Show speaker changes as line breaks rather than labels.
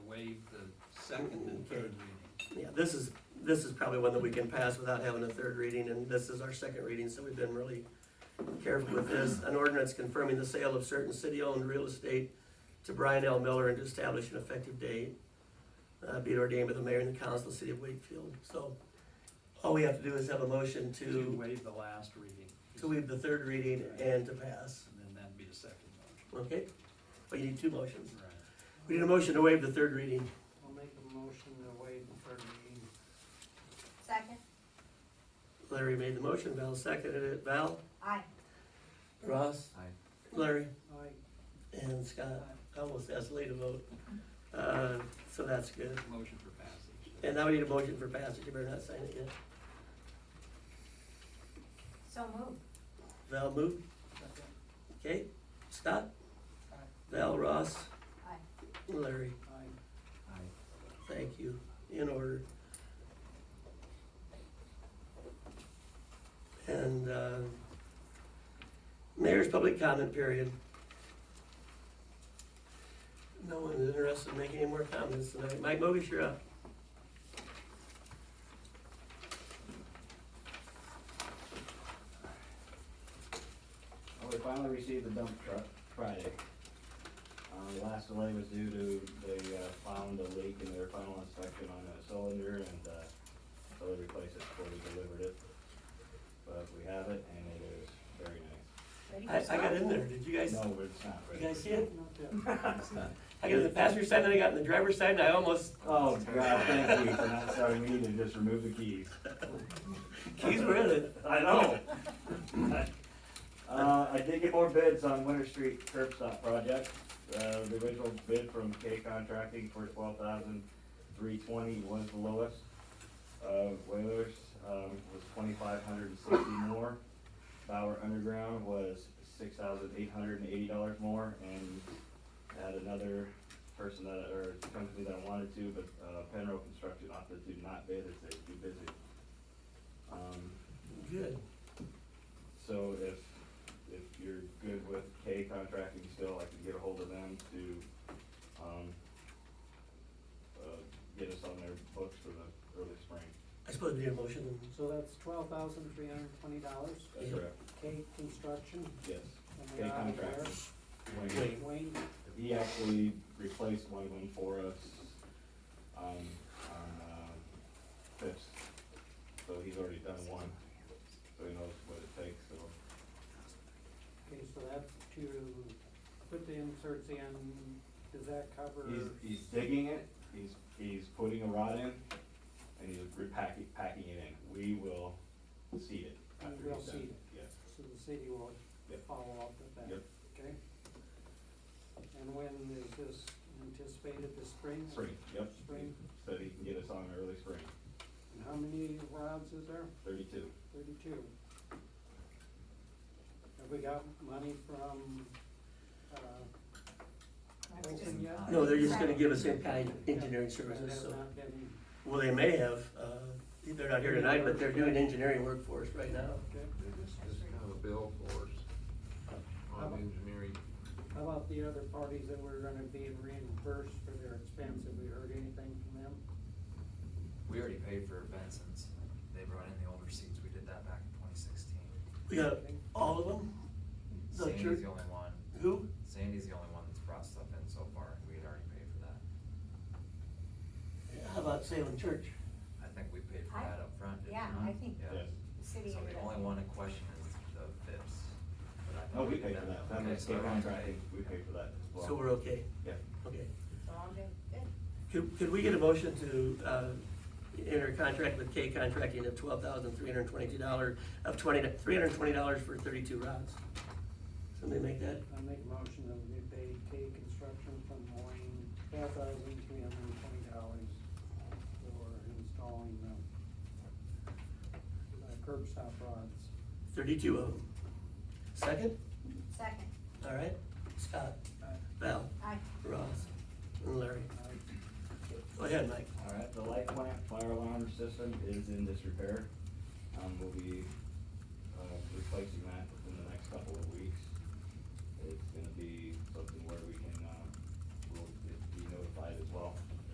the second and third reading.
Yeah, this is, this is probably one that we can pass without having a third reading, and this is our second reading, so we've been really careful with this. An ordinance confirming the sale of certain city-owned real estate to Brian L. Miller and to establish an effective date. Uh, be it ordained by the mayor and the council of the city of Wakefield, so all we have to do is have a motion
To
to,
waive the last reading.
to waive the third reading and to pass,
And then that'd be the second motion.
okay? But you need two motions.
Right.
We need a motion to waive the third reading.
I'll make a motion to waive the third reading.
Second,
Larry made the motion, Val seconded it, Val,
aye.
Ross? Larry?
Aye.
And Scott, I almost asked Lee to vote, uh, so that's good.
Motion for passage.
And now we need a motion for passage, you better not sign it yet.
So moved.
Val moved,
Second.
okay, Scott?
Aye.
Val, Ross,
Aye.
Larry,
Aye.
thank you, in order. And, uh, mayor's public comment period. No one is interested in making any more comments tonight. Mike Mogus, you're up.
Well, Oh, we finally received the dump truck Friday. Uh, the last delay was due to, they, uh, found a leak in their final inspection on a cylinder and, uh, so they replaced it before we delivered it. But we have it and it is very nice.
Ready for
I, I got
smoke?
in there, did you guys?
No, it's not ready.
You guys see it?
Not that.
I got in the passenger side, then I got in the driver's side, and I almost, uh,
Oh, God, thank you for not telling me to just remove the keys.
keys were in it.
I know. Uh, I did get more bids on Winter Street curb stop project. Uh, the original bid from K Contracting for twelve thousand three twenty was the lowest. Uh, Whalers, um, was twenty-five hundred and sixty more. Bauer Underground was six thousand eight hundred and eighty dollars more, and had another person that, or company that wanted to, but, uh, Penrose Construction opted to not bid, as they're too busy. Um,
Good.
so if, if you're good with K contracting still, I can get a hold of them to, um, uh, get us on their books for the early spring.
I suppose we need a motion.
So that's twelve thousand three hundred and twenty dollars,
That's
Yep.
correct.
K Construction,
Yes.
and
K
they're out of there.
contracting. Wayne,
Wait. Wayne.
Wayne,
he actually replaced one of them for us, um, on, uh, fifth. So he's already done one, so he knows what it takes, so.
okay, so that's to put the inserts in, does that cover?
He's, he's digging it, he's, he's putting a rod in, and he's repacking, packing it in. We will seed it
We
after
will
he's done.
seed it.
Yes,
So the city will
Yep.
follow up with that?
Yep.
Okay. And when is this anticipated, this spring?
spring, yep.
Spring.
So he can get us on early spring,
And how many rods is there?
thirty-two.
Thirty-two. Have we got money from, uh,
It's just-
Wilson yet?
No, they're just gonna give us in kind engineering services,
Has
so,
not been,
well, they may have, uh, they're not here tonight, but they're doing engineering work for us right now.
okay.
This is kind of a bill for us on engineering.
How about the other parties that were gonna be reimbursed for their expense? Have we heard anything from them?
We already paid for Benson's. They brought in the old receipts. We did that back in twenty sixteen.
We got all of them? The church-
Sandy's the only one,
Who?
Sandy's the only one that's brought stuff in so far. We had already paid for that.
How about Salem Church?
I think we paid for
I-
that up front. didn't
yeah,
we?
I think-
Yeah.
Yes.
The city
So
ended
the
up-
only one in question is the Phipps. but I
Oh,
thought
we
did
paid for that, that
Okay,
was
so
K
everyone
contracting,
paid.
we paid for that as well.
So we're okay,
Yeah,
okay.
So I'm good.
Could, could we get a motion to, uh, enter a contract with K Contracting of twelve thousand three hundred and twenty-two dollars, of twenty, three hundred and twenty dollars for thirty-two rods? Somebody make that?
I make a motion that we pay K Construction from Wayne twelve thousand three hundred and twenty dollars for installing the uh, curb stop rods.
Thirty-two of them. Second?
Second,
All right, Scott,
Aye.
Val,
aye.
Ross, and Larry. Go ahead, Mike.
all right, the light plant fire alarm system is in disrepair. Um, we'll be, uh, replacing that within the next couple of weeks. It's gonna be uh,